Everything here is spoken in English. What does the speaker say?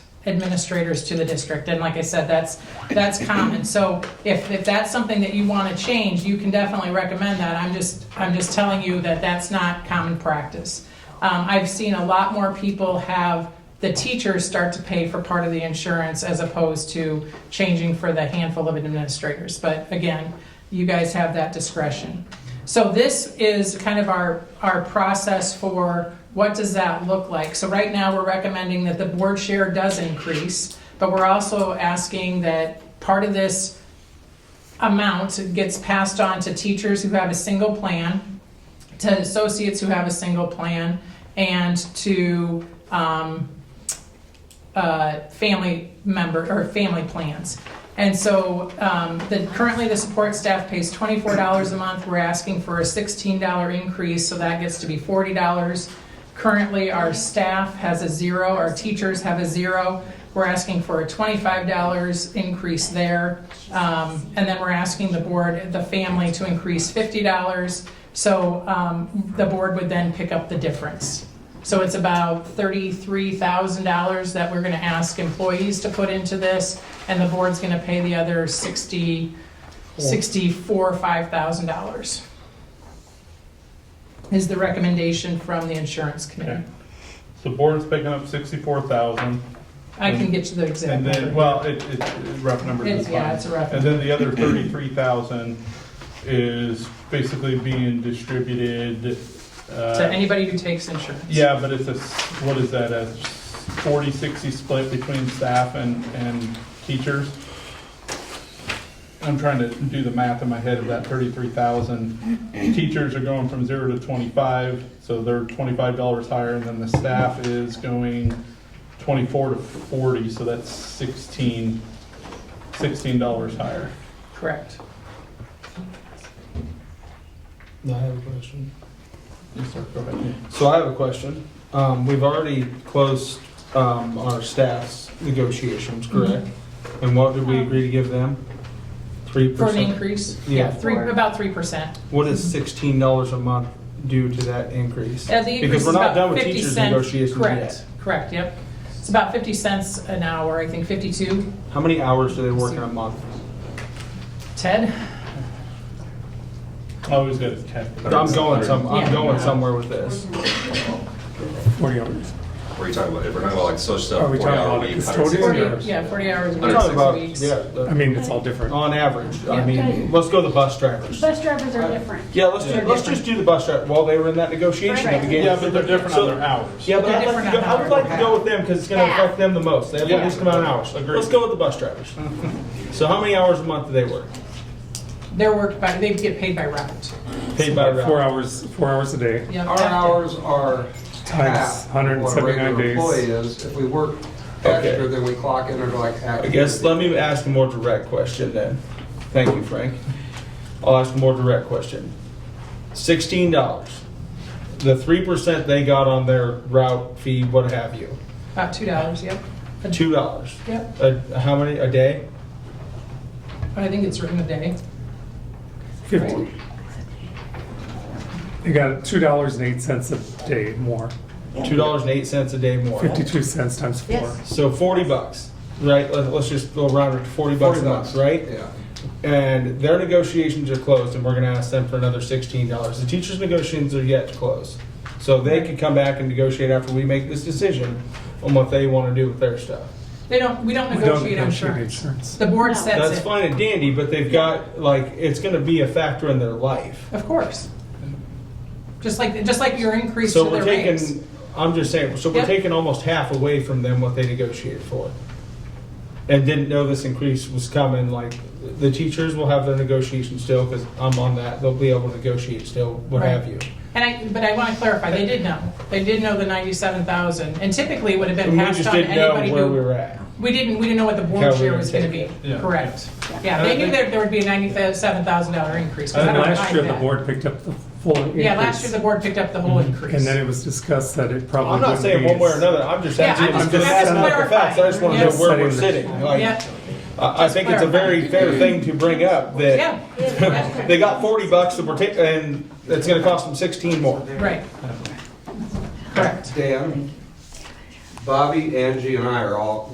administrators to the district. And like I said, that's, that's common. So if, if that's something that you want to change, you can definitely recommend that. I'm just, I'm just telling you that that's not common practice. Um, I've seen a lot more people have the teachers start to pay for part of the insurance as opposed to changing for the handful of administrators. But again, you guys have that discretion. So this is kind of our, our process for what does that look like? So right now, we're recommending that the board share does increase, but we're also asking that part of this amount gets passed on to teachers who have a single plan, to associates who have a single plan, and to um, uh, family member, or family plans. And so, um, the, currently the support staff pays twenty-four dollars a month, we're asking for a sixteen dollar increase, so that gets to be forty dollars. Currently, our staff has a zero, our teachers have a zero, we're asking for a twenty-five dollars increase there. Um, and then we're asking the board, the family to increase fifty dollars, so, um, the board would then pick up the difference. So it's about thirty-three thousand dollars that we're gonna ask employees to put into this, and the board's gonna pay the other sixty, sixty-four, five thousand dollars. Is the recommendation from the insurance committee. Okay. So board's picking up sixty-four thousand, I can get you the exact and then, number. well, it, it's rough numbers. It's, yeah, it's a rough. And then the other thirty-three thousand is basically being distributed, uh. To anybody who takes insurance. Yeah, but it's a, s- what is that, a 40-60 split between staff and, and teachers? I'm trying to do the math in my head of that thirty-three thousand. Teachers are going from zero to twenty-five, so they're twenty-five dollars higher, and then the staff is going twenty-four to forty, so that's sixteen, sixteen dollars higher. Correct. I have a question. Yes, sir, go ahead. So I have a question. Um, we've already closed, um, our staff's negotiations, correct? And what did we agree to give them? Three Um, For an percent. increase? Yeah. Three, about three percent. What is sixteen dollars a month due to that increase? Uh, the increase Because is we're not about done with 50 teachers' cents- negotiations Correct, yet. correct, yep. It's about 50 cents an hour, I think 52. How many hours do they work in a month? Ted? I always get a tech. I'm going some, Yeah. I'm going somewhere with this. Forty hours. What are you talking about? If we're talking about like social stuff, Are we 40 talking hour about week, the 160 custodian? 40, hours. yeah, 40 hours, a I'm week, talking about, six yeah, weeks. I the- mean, it's all different. Oh, on average. I Yeah. mean, let's go to the bus drivers. Bus drivers are different. Yeah, let's do, They're let's different. just do the bus driver. While they were in that negotiation at the beginning. Yeah, but they're different So- on their hours. Yeah, but They're I'd like to different go, on I would how like to go with them because it's gonna Yeah. affect them the most. They have the Yeah. least amount of hours. Agreed. Let's go with the bus drivers. So how many hours a month do they work? They're worked by, they get paid by route. Paid by Four route. hours, four hours a day, Yeah, Our hours are times half of hundred and what a seventy-nine regular employee days. is. If we work Okay. extra, then we clock in under like half. I guess, let me ask a more direct question then. Thank you, Frank. I'll ask a more direct question. Sixteen dollars. The three percent they got on their route fee, what have you, About $2, yep. two dollars. Yep, Uh, how many, a day? I think it's written a day. Fifty. They got two dollars and eight cents a day more, Two dollars and eight cents a day more. fifty-two cents times four. Yes. So forty bucks, right? Let- Let's just go round it to forty bucks a month, right? Yeah. And their negotiations are closed, and we're going to ask them for another sixteen dollars. The teachers' negotiations are yet to close, so they could come back and negotiate after we make this decision on what they want to do with their stuff. They don't, we don't We don't negotiate negotiate insurance. insurance. The board No. That's sets it. fine and dandy, but they've got like it's going to be a factor in their life. Of course. Just like, just like your increase to So we're their rates. taking. I'm just saying. So we're Yep. taking almost half away from them what they negotiated for, and didn't know this increase was coming. Like the teachers will have their negotiation still because I'm on that. They'll be able to negotiate still, what Right. have you. And I, but I want to clarify, they did know. They did know the 97,000, and typically would have been And we passed just on to didn't know anybody where we who. were at. We didn't, we didn't know what the board How we share would was going to be. take it. Yeah. Correct. Yeah, And they I knew think- there there would be a $97,000 increase. 'cause And I don't Uh, last mind year, the that. board picked up the full increase. Yeah, last year the board picked up the whole increase. And then it was discussed that it probably I'm wouldn't be. not saying one way or another. I'm just Yeah, asking. I'm I'm, just- just I'm just asking out the facts. I just clarifying. want to know where we're Yes. sitting. Like, Yeah, I, I think it's a very fair thing to bring up that yeah, they got 40 bucks that we're ta- and it's going to cost them 16 more. right. Correct. Dan, Bobby, Angie, and I are all